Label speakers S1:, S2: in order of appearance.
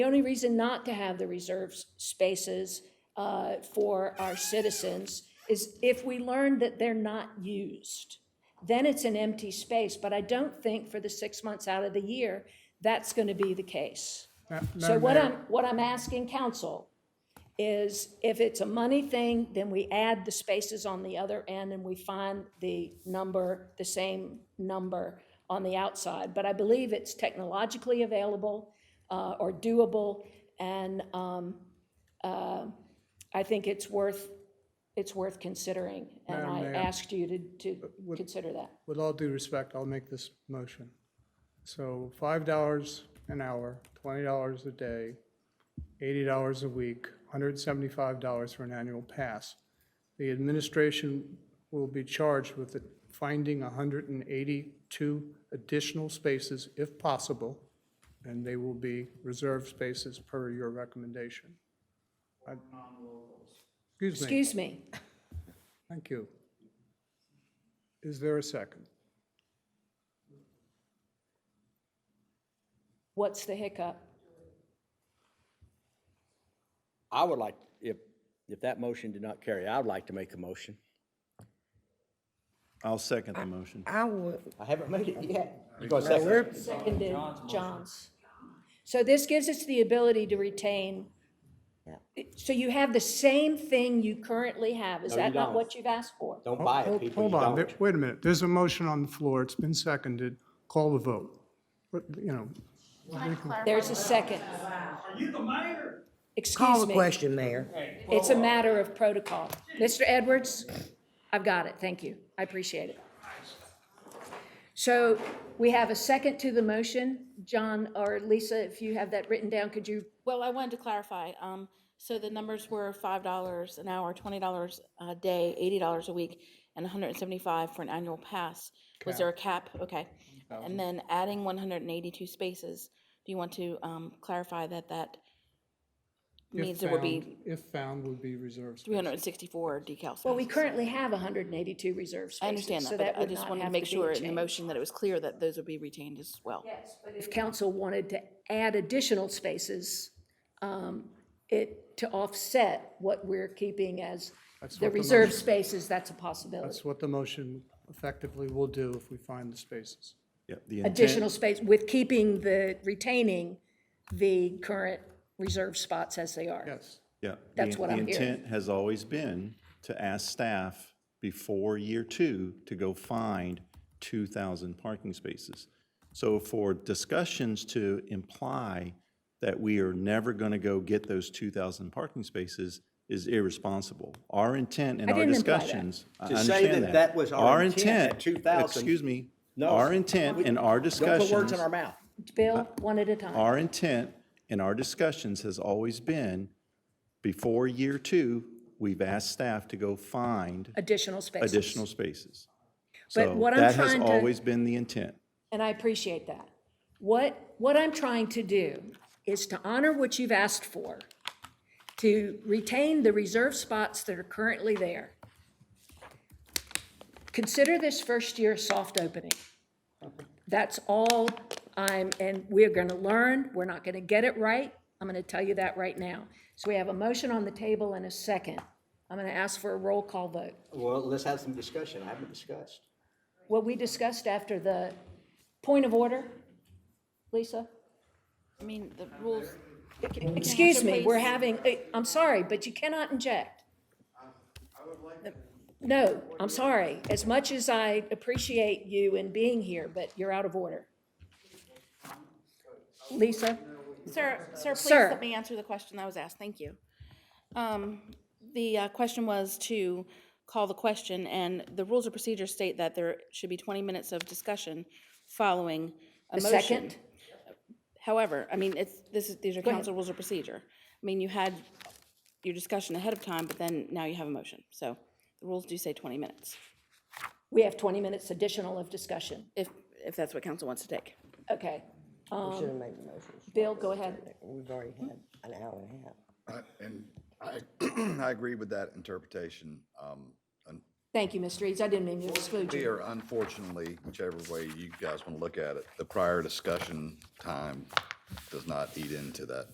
S1: The only reason not to have the reserved spaces uh, for our citizens is if we learn that they're not used, then it's an empty space. But I don't think for the six months out of the year, that's going to be the case.
S2: Ma-
S1: So
S2: Uh, Madam
S1: what I'm,
S2: Mayor,
S1: what I'm asking council is if it's a money thing, then we add the spaces on the other end and we find the number, the same number on the outside. But I believe it's technologically available uh, or doable, and um, uh, I think it's worth, it's worth considering. And
S2: Madam
S1: I
S2: Mayor.
S1: asked you to, to consider that.
S2: with all due respect, I'll make this motion. So five dollars an hour, twenty dollars a day, eighty dollars a week, hundred and seventy-five dollars for an annual pass. The administration will be charged with the- finding hundred and eighty-two additional spaces if possible, and they will be reserved spaces per your recommendation. I- Excuse me,
S1: Excuse me,
S2: thank you. Is there a second?
S1: what's the hiccup?
S3: I would like, if, if that motion did not carry, I would like to make a motion.
S4: I'll second the motion.
S5: I would,
S3: I haven't made it yet. You gonna second?
S1: Seconded, John's. So this gives us the ability to retain. So you have the same thing you currently have. Is
S3: No,
S1: that
S3: you
S1: not
S3: don't.
S1: what you've asked for?
S3: Don't buy it,
S2: Hold-
S3: people, you
S2: Hold on,
S3: don't.
S2: There- wait a minute, there's a motion on the floor, it's been seconded, call the vote. But, you know,
S1: There's a second.
S6: Are you the mayor?
S5: call
S1: Excuse
S5: the
S1: me.
S5: question, Mayor.
S1: It's a matter of protocol. Mr. Edwards, I've got it. Thank you. I appreciate it. So we have a second to the motion. John or Lisa, if you have that written down, could you
S7: Well, I wanted to clarify, um, so the numbers were five dollars an hour, twenty dollars a day, eighty dollars a week, and hundred and seventy-five for an annual pass. Was there a cap? Okay. And then adding one hundred and eighty-two spaces, do you want to, um, clarify that that
S2: if
S7: means there would be
S2: found, if found, would be reserved. space.
S7: three hundred and sixty-four decal
S1: Well, we
S7: spaces?
S1: currently have 182 reserve spaces.
S7: I understand
S1: so
S7: that, but I
S1: would
S7: just
S1: not
S7: wanted to
S1: have
S7: make
S1: be a
S7: sure in the
S1: change.
S7: motion that it was clear that those would be retained as well.
S1: Yes, but if council wanted to add additional spaces, um, it, to offset what we're keeping as the
S2: what the
S1: reserve
S2: motion-
S1: spaces, that's a possibility.
S2: That's what the motion effectively will do if we find the spaces.
S4: Yep, the intent-
S1: Additional space with keeping the, retaining the current reserve spots as they are.
S2: Yes,
S4: Yeah. the-
S1: That's what I'm
S4: The
S1: hearing.
S4: intent has always been to ask staff before year two to go find 2,000 parking spaces. So for discussions to imply that we are never going to go get those 2,000 parking spaces is irresponsible. Our intent and
S1: I
S4: our
S1: didn't imply that.
S4: discussions. I
S3: To say
S4: understand
S3: that that was our intent at 2,000
S4: Excuse me.
S3: No.
S4: Our intent and our
S3: Don't
S4: discussions.
S3: put words in our mouth.
S2: Uh,
S1: Bill, one at a time.
S4: Our intent in our discussions has always been, before year two, we've asked staff to go find
S1: Additional spaces.
S4: additional spaces.
S1: But
S4: So
S1: what I'm
S4: that has
S1: trying to-
S4: always been the intent.
S1: and I appreciate that. What, what I'm trying to do is to honor what you've asked for, to retain the reserve spots that are currently there. Consider this first year a soft opening. That's all I'm, and we're gonna learn, we're not gonna get it right, I'm gonna tell you that right now. So we have a motion on the table and a second. I'm gonna ask for a roll call vote.
S3: Well, let's have some discussion. I haven't discussed.
S1: What we discussed after the point of order, Lisa?
S7: I mean, the rules,
S1: Excuse me, we're
S7: Please.
S1: having, eh, I'm sorry, but you cannot inject. No, I'm sorry. As much as I appreciate you and being here, but you're out of order. Lisa?
S7: Sir, sir, please
S1: Sir.
S7: let me answer the question that was asked. Thank you. Um, The uh, question was to call the question, and the rules of procedure state that there should be 20 minutes of discussion following a
S1: The
S7: motion.
S1: second?
S7: However, I mean, it's, this is, these are council rules of procedure. I mean, you had your discussion ahead of time, but then now you have a motion. So the rules do say 20 minutes,
S1: We have 20 minutes additional of discussion.
S7: if, if that's what council wants to take.
S1: Okay.
S5: We should have made the motion.
S1: Bill, go ahead.
S5: We've already had an hour and a half.
S8: I- And I, I agree with that interpretation. Um, un-
S1: Thank you, Mr. Eads. I didn't mean to exclude you.
S8: Here, unfortunately, whichever way you guys want to look at it, the prior discussion time does not eat into that